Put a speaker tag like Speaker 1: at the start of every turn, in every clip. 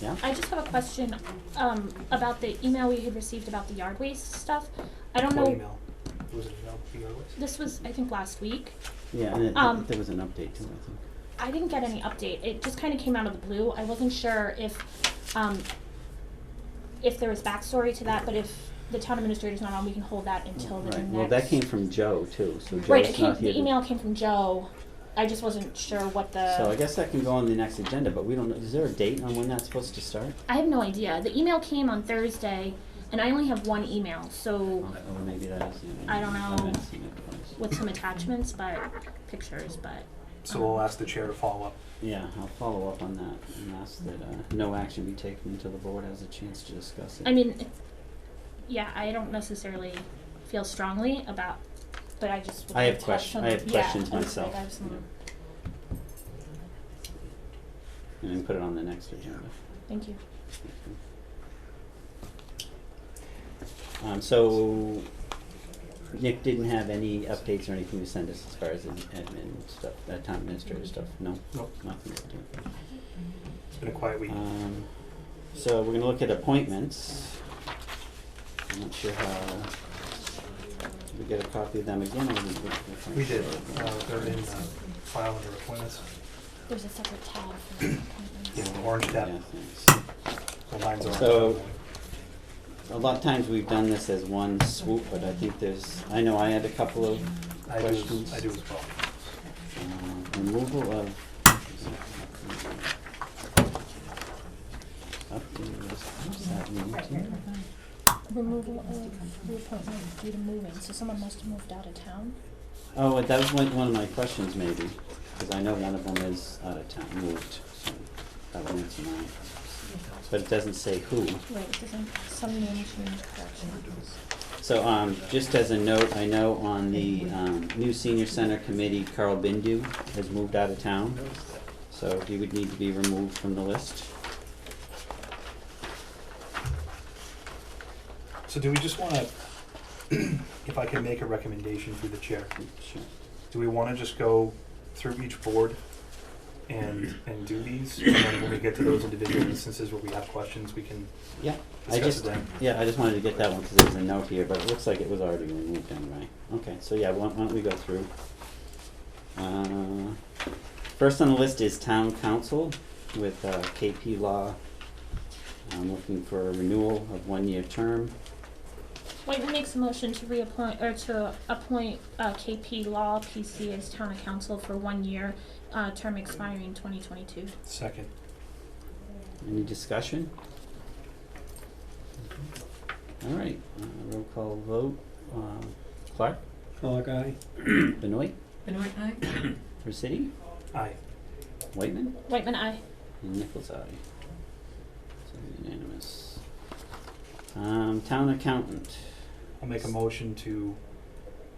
Speaker 1: Yeah?
Speaker 2: I just have a question, um, about the email we had received about the yard waste stuff. I
Speaker 1: Oh,
Speaker 2: don't
Speaker 3: What
Speaker 2: know,
Speaker 3: email? Was it email, email list?
Speaker 2: this was, I think, last week.
Speaker 1: Yeah, and it,
Speaker 2: Um,
Speaker 1: there was an update too, I think.
Speaker 2: I didn't get any update. It just kind of came out of the blue. I wasn't sure if, um, if there was backstory to that, but if the town administrator's not on, we can hold that until the next.
Speaker 1: Right, well, that came from Joe too, so Joe's not here.
Speaker 2: Right, it came, the
Speaker 1: to-
Speaker 2: email came from Joe. I just wasn't sure what the.
Speaker 1: So I guess that can go on the next agenda, but we don't, know- is there a date on when that's supposed to start?
Speaker 2: I have no idea. The email came on Thursday, and I only have one email, so
Speaker 1: Okay, well, Oh, maybe that is, you know.
Speaker 2: I don't know.
Speaker 1: haven't seen it twice.
Speaker 2: with some attachments, but pictures, but
Speaker 3: So we'll ask the chair to follow up.
Speaker 1: Yeah, I'll follow up on that and ask that, uh, no action be taken until the board has a chance to discuss it.
Speaker 2: I mean, it- yeah, I don't necessarily feel strongly about, but I just. would
Speaker 1: I
Speaker 2: like
Speaker 1: have
Speaker 2: to
Speaker 1: question,
Speaker 2: some-
Speaker 1: I have
Speaker 2: yeah,
Speaker 1: questions
Speaker 2: I was
Speaker 1: myself,
Speaker 2: like, I have some-
Speaker 1: you know. And then put it on the next agenda.
Speaker 2: Thank you.
Speaker 1: Um, so Nick didn't have any updates or anything to send us as far as ad- admin stuff, uh, town administrator stuff, no?
Speaker 3: Nope.
Speaker 1: Nothing to do.
Speaker 3: It's been a quiet week.
Speaker 1: Um, so we're gonna look at appointments. I'm not sure how, did we get a copy of them again or we? we-
Speaker 3: We did, uh, they're in, uh, file under appointments.
Speaker 2: There's a separate tab for the appointments.
Speaker 3: Yeah, the orange
Speaker 1: Yeah,
Speaker 3: tab,
Speaker 1: thanks.
Speaker 3: the lines are.
Speaker 1: So- A lot of times we've done this as one swoop, but I think there's, I know I had a couple of
Speaker 3: I do,
Speaker 1: questions.
Speaker 3: as- I do as well.
Speaker 1: Uh, Removal of. Up to this- what's that mean to you?
Speaker 2: Removal of reappointment due to moving, so someone must have moved out of town?
Speaker 1: Oh, that was one, one of my questions maybe, because I know one of them is out of town, moved, so that would answer mine. But it doesn't say who.
Speaker 2: Right, doesn't, some name change corrections.
Speaker 1: So, um, just as a note, I know on the, um, new senior center committee, Carl Bindu has moved out of town. So he would need to be removed from the list.
Speaker 3: So do we just wanna, if I can make a recommendation through the chair,
Speaker 1: Sure.
Speaker 3: do we wanna just go through each board and, and do these? And then when we get to those individual instances where we have questions, we can
Speaker 1: Yeah, I
Speaker 3: discuss it
Speaker 1: just,
Speaker 3: then?
Speaker 1: yeah, I just wanted to get that one because there's a note here, but it looks like it was already removed anyway. Okay, so yeah, why why don't we go through? Uh, First on the list is town council with uh, KP Law. I'm looking for a renewal of one-year term.
Speaker 2: White makes a motion to reappoint, or to appoint uh, KP Law PC as town council for one year, uh, term expiring 2022.
Speaker 3: Second.
Speaker 1: Any discussion? All right, uh, roll call vote. Um, Clark,
Speaker 4: Clark, aye.
Speaker 1: Benoit,
Speaker 5: Benoit, aye?
Speaker 1: Resity,
Speaker 3: Aye.
Speaker 1: Whitman?
Speaker 2: Whitman, aye.
Speaker 1: And Nichols' eye. So unanimous. Um, town accountant.
Speaker 3: I'll make a motion to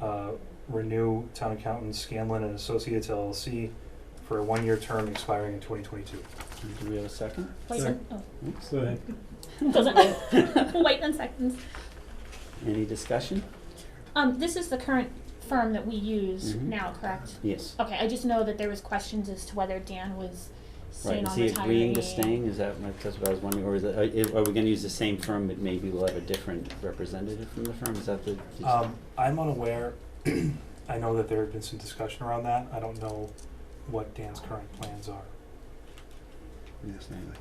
Speaker 3: uh, renew town accountant Scanlon and Associates LLC for a one-year term expiring in twenty twenty-two.
Speaker 1: Do we have a second?
Speaker 2: Whitman, oh,
Speaker 1: Oops.
Speaker 4: Go ahead.
Speaker 2: doesn't, Whitman seconds.
Speaker 1: Any discussion?
Speaker 2: Um, this is the current firm that we use
Speaker 1: Mhm.
Speaker 2: now, correct?
Speaker 1: Yes.
Speaker 2: Okay, I just know that there was questions as to whether Dan was staying
Speaker 1: Right, is
Speaker 2: on
Speaker 1: he
Speaker 2: retiring.
Speaker 1: agreeing to staying? Is that, that's what I was wondering, or is it, are, are we gonna use the same firm, but maybe we'll have a different representative from the firm? Is that the?
Speaker 3: Um, I'm unaware, I know that there had been some discussion around that. I don't know what Dan's current plans are.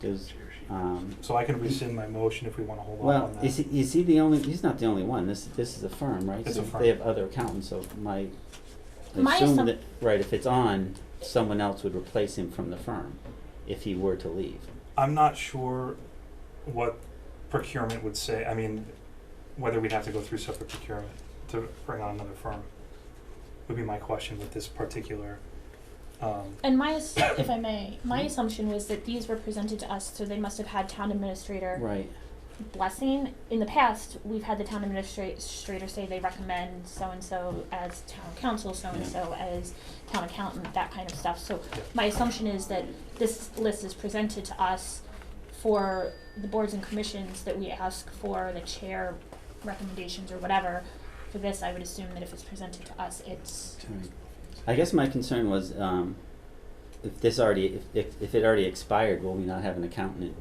Speaker 1: Does, um,
Speaker 3: So I can rescind my motion if we want to hold off
Speaker 1: well,
Speaker 3: on
Speaker 1: is
Speaker 3: that.
Speaker 1: he, is he the only, he's not the only one. This, this is a firm, right?
Speaker 3: It's a
Speaker 1: So
Speaker 3: firm.
Speaker 1: They have other accountants, so my, I
Speaker 2: My
Speaker 1: assume
Speaker 2: assump-
Speaker 1: that, right, if it's on, someone else would replace him from the firm if he were to leave.
Speaker 3: I'm not sure what procurement would say, I mean, whether we'd have to go through separate procurement to bring on another firm would be my question with this particular, um,
Speaker 2: And my, ass- if I may,
Speaker 1: Mm-hmm.
Speaker 2: my assumption was that these were presented to us, so they must have had town administrator
Speaker 1: Right.
Speaker 2: blessing. In the past, we've had the town administrator say they recommend so-and-so as town council, so-and-so as town accountant, that kind of stuff. So my assumption is that this list is presented to us for the boards and commissions that we ask for, the chair recommendations or whatever. For this, I would assume that if it's presented to us, it's,
Speaker 1: I guess my concern was, um, if this already, if, if, if it already expired, will we not have an accountant